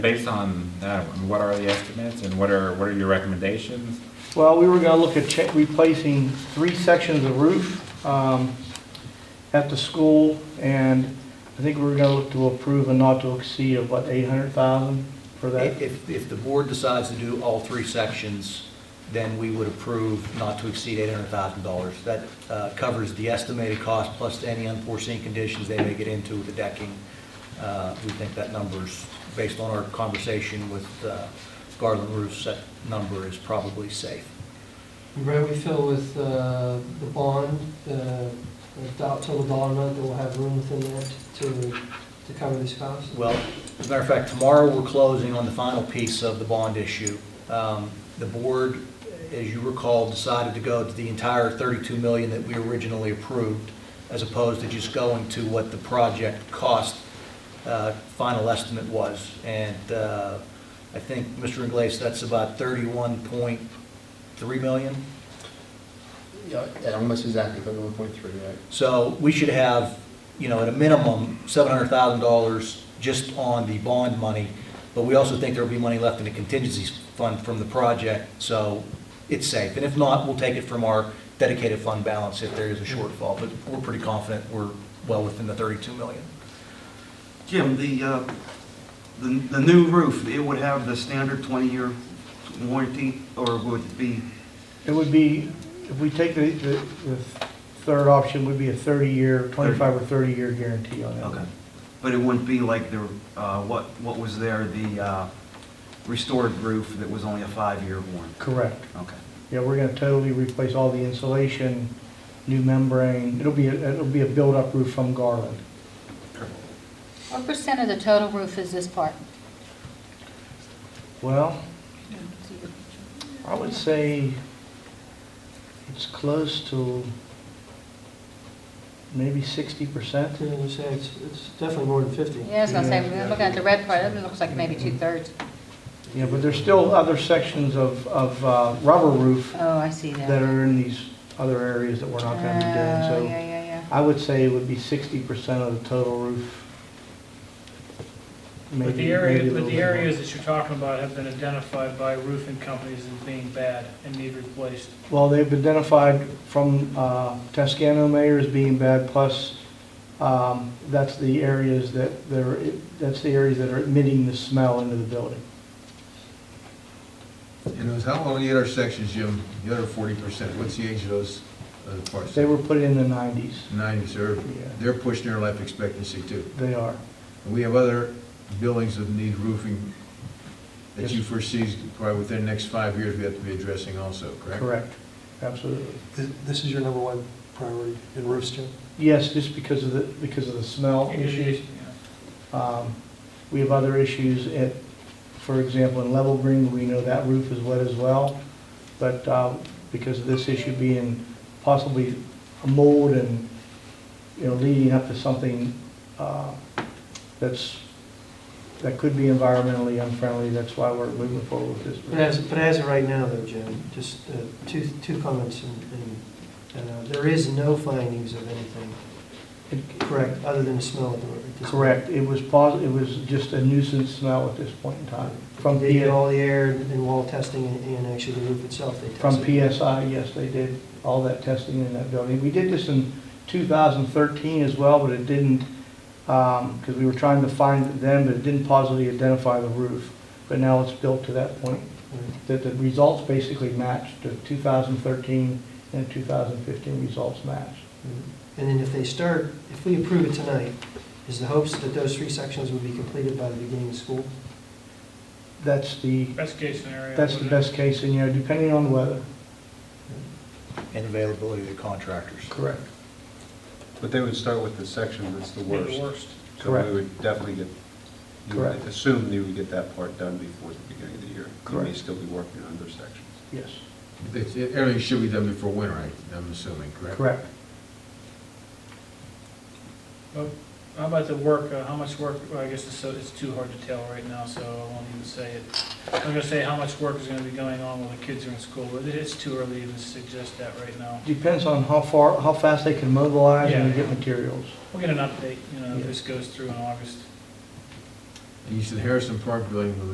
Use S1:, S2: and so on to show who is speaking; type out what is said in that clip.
S1: Based on, uh, what are the estimates and what are, what are your recommendations?
S2: Well, we were going to look at cha- replacing three sections of roof um, at the school, and I think we were going to look to approve a not to exceed of, what, 800,000 for that?
S3: If, if the board decides to do all three sections, then we would approve not to exceed $800,000. That uh, covers the estimated cost plus any unforeseen conditions they may get into with the decking. Uh, We think that number's, based on our conversation with uh, Garland Roofs, that number is probably safe.
S4: Right, we fill with uh, the bond, the the do- total dollar amount that will have room within that to, to cover these costs.
S3: Well, as a matter of fact, tomorrow we're closing on the final piece of the bond issue. Um, The board, as you recall, decided to go to the entire 32 million that we originally approved, as opposed to just going to what the project cost uh, final estimate was. And uh, I think, Mr. Inglese, that's about 31.3 million?
S5: Yeah, yeah, almost exactly, but one point three, right?
S3: So we should have, you know, at a minimum, $700,000 just on the bond money, but we also think there'll be money left in the contingency fund from the project, so it's safe. And if not, we'll take it from our dedicated fund balance if there is a shortfall, but we're pretty confident we're well within the 32 million.
S6: Jim, the, uh, the the new roof, it would have the standard 20-year warranty, or would it be,
S2: It would be, if we take the, the the third option, would be a 30-year, 25 or 30-year guarantee on that.
S6: okay, but it wouldn't be like the, uh, what, what was there, the uh, restored roof that was only a five-year warranty?
S2: Correct.
S6: Okay.
S2: Yeah, we're going to totally replace all the insulation, new membrane. It'll be, a- it'll be a build-up roof from Garland.
S7: What percent of the total roof is this part?
S2: Well, I would say it's close to maybe sixty percent.
S4: So, you know, say it's, it's definitely more than 50.
S7: Yeah, I was gonna say, we're looking at the red part, it looks like maybe two-thirds.
S2: Yeah, but there's still other sections of, of uh, rubber roof
S7: Oh, I see that.
S2: that are in these other areas that we're not gonna
S7: Oh,
S2: be
S7: yeah,
S2: doing.
S7: yeah,
S2: So I would say it would be sixty percent of the total roof.
S8: But
S2: Maybe-
S8: the
S2: maybe
S8: area,
S2: a
S8: but
S2: little
S8: the
S2: bit more.
S8: areas that you're talking about have been identified by roofing companies as being bad and need replaced.
S2: Well, they've identified from uh, Tascano Mayor as being bad, plus um, that's the areas that, they're that's the areas that are emitting the smell into the building.
S9: And those, how long are the intersections, Jim? The other forty percent, what's the age of those other parts?
S2: They were put in the 90s.
S9: Nineties, they're, they're pushing their life expectancy too.
S2: They are.
S9: And we have other buildings that need roofing that you
S2: Yes.
S9: foresee is probably within the next five years we have to be addressing also, correct?
S2: Correct. Absolutely.
S4: This is your number one priority in roofs, Jim?
S2: Yes, just because of the, because of the smell issues.
S8: Yeah.
S2: Um, We have other issues at, for example, in Level Green, we know that roof is wet as well. But uh, because of this issue being possibly a mold and, you know, leading up to something uh, that's, that could be environmentally unfriendly, that's why we're moving forward with this.
S4: But as, but as of right now though, Jim, just uh, two, two comments and, and uh, there is no findings of anything, correct, other than the smell of the roof. at this point.
S2: Correct. It was posi, it was just a nuisance smell at this point in time. From
S4: They did
S2: the,
S4: all the air and wall testing and and actually the roof itself, they tested.
S2: From PSI, yes, they did all that testing in that building. We did this in 2013 as well, but it didn't, because we were trying to find it then, but it didn't positively identify the roof. But now it's built to that point, that the results basically matched, the 2013 and 2015 results matched.
S4: And then if they start, if we approve it tonight, is the hopes that those three sections will be completed by the beginning of school?
S2: That's the,
S8: Best case scenario.
S2: that's the
S8: wouldn't it?
S2: best case, and, you know, depending on weather.
S3: And availability of the contractors.
S2: Correct.
S10: But they would start with the section that's the
S8: Be
S10: worst.
S8: The worst.
S10: So
S2: Correct.
S10: we would definitely get, you would
S2: Correct.
S10: assume you would get that part done before the beginning of the year. You may
S2: Correct.
S10: still be working on other sections.
S2: Yes,
S9: It's- Everything should be done before winter, I- I'm assuming, correct?
S2: correct.
S8: Well, How about the work, uh, how much work, well, I guess it's, so- it's too hard to tell right now, so I won't even say it. I'm gonna say how much work is gonna be going on while the kids are in school, but it is too early to even suggest that right now.
S2: Depends on how far, how fast they can mobilize and
S8: Yeah.
S2: get materials.
S8: We'll get an update, you know, if
S2: Yeah.
S8: this goes through in August.
S9: And you said Harrison Park building was